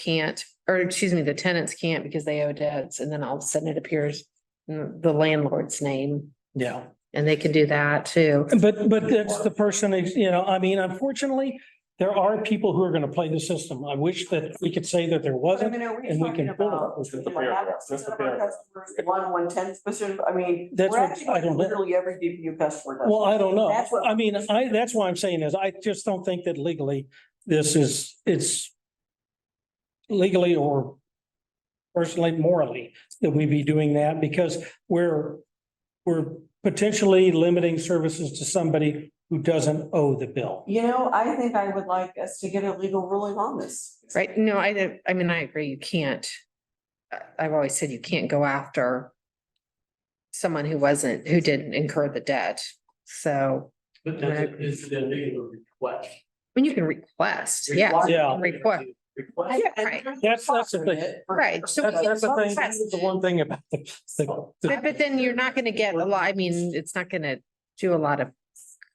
can't, or excuse me, the tenants can't because they owe debts and then all of a sudden it appears in the landlord's name Yeah, and they can do that too. but, but that's the person, you know, I mean, unfortunately, there are people who are going to play the system. I wish that we could say that there But I wasn't. mean, are we and we can talking pull it. about? That's the you know, paragraph. half That's the percent of our paragraph. customers, One, one tenth percent, I mean. That's we're what actually I don't know. Literally every DPU customer does. Well, I don't know. That's what- I mean, I, that's why I'm saying is I just don't think that legally this is, it's legally or personally morally that we be doing that because we're, we're potentially limiting services to somebody who doesn't owe the bill. You know, I think I would like us to get a legal ruling on this. Right? No, I, don't- I mean, I agree, you can't. I- I've always said you can't go after someone who wasn't, who didn't incur the debt. So, But that's, this is a legal request. I mean, you can request, yeah. Request. Yeah. Request. Request. And Right. there's That's- that's the profit in thing. it for- Right. So That's, that's the thing, request. that's the one thing about the, the- the- But, but then you're not gonna get a lot, I mean, it's not gonna do a lot of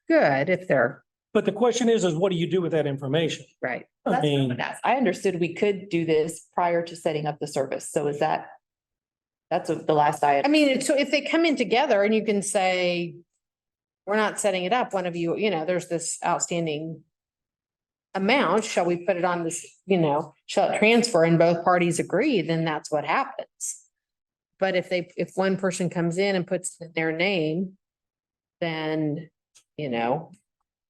good if they're, but the question is, is what do you do with that information? right. I That's what I mean, would ask. I understood we could do this prior to setting up the service. So is that? That's the last I I had. mean, so if they come in together and you can say, we're not setting it up, one of you, you know, there's this outstanding amount, shall we put it on this, you know, shall it transfer and both parties agree, then that's what happens. But if they, if one person comes in and puts in their name, then, you know,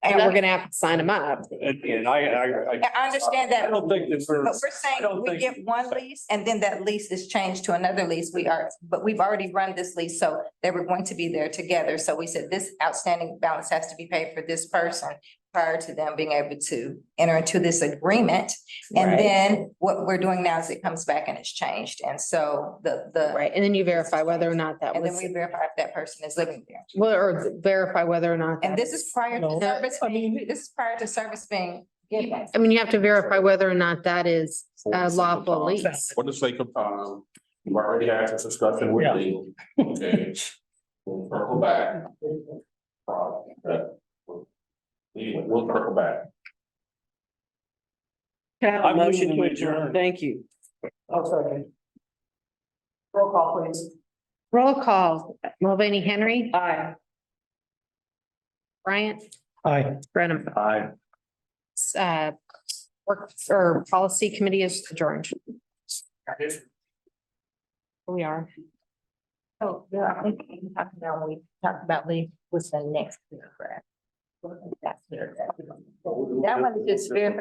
and we're gonna have to sign them up. And, and I, I, I. I understand I that, but don't think that we're. we're saying we give one lease and then that lease is changed to another lease. We are, but we've already run this lease, so they were going to be there together. So we said this outstanding balance has to be paid for this person prior to them being able to enter into this agreement. And then what we're doing now is it comes back and it's changed. And so the, the, Right, and then you verify whether or not that and then was, we verify if that person is living there. well, or verify whether or not. And that- this is prior No. to service, I mean- being- this is prior to service being given. I mean, you have to verify whether or not that is uh, a lawful lease. lease. For the sake of time, we um, already had this discussion with Yeah. legal. Okay. We'll circle back. Problem, but we'll- we- We'll circle back. Can I have a I move motion to we adjourn? adjourn. Thank you. Oh, sorry. Roll call, please. Roll call, Mulvaney Henry, Aye. Bryant, I. Brenham, Aye. uh, work, or policy committee is adjourned. We are. Oh, yeah, I think we talked about, we talked about leave was the next paragraph. That's clear. That one is just very.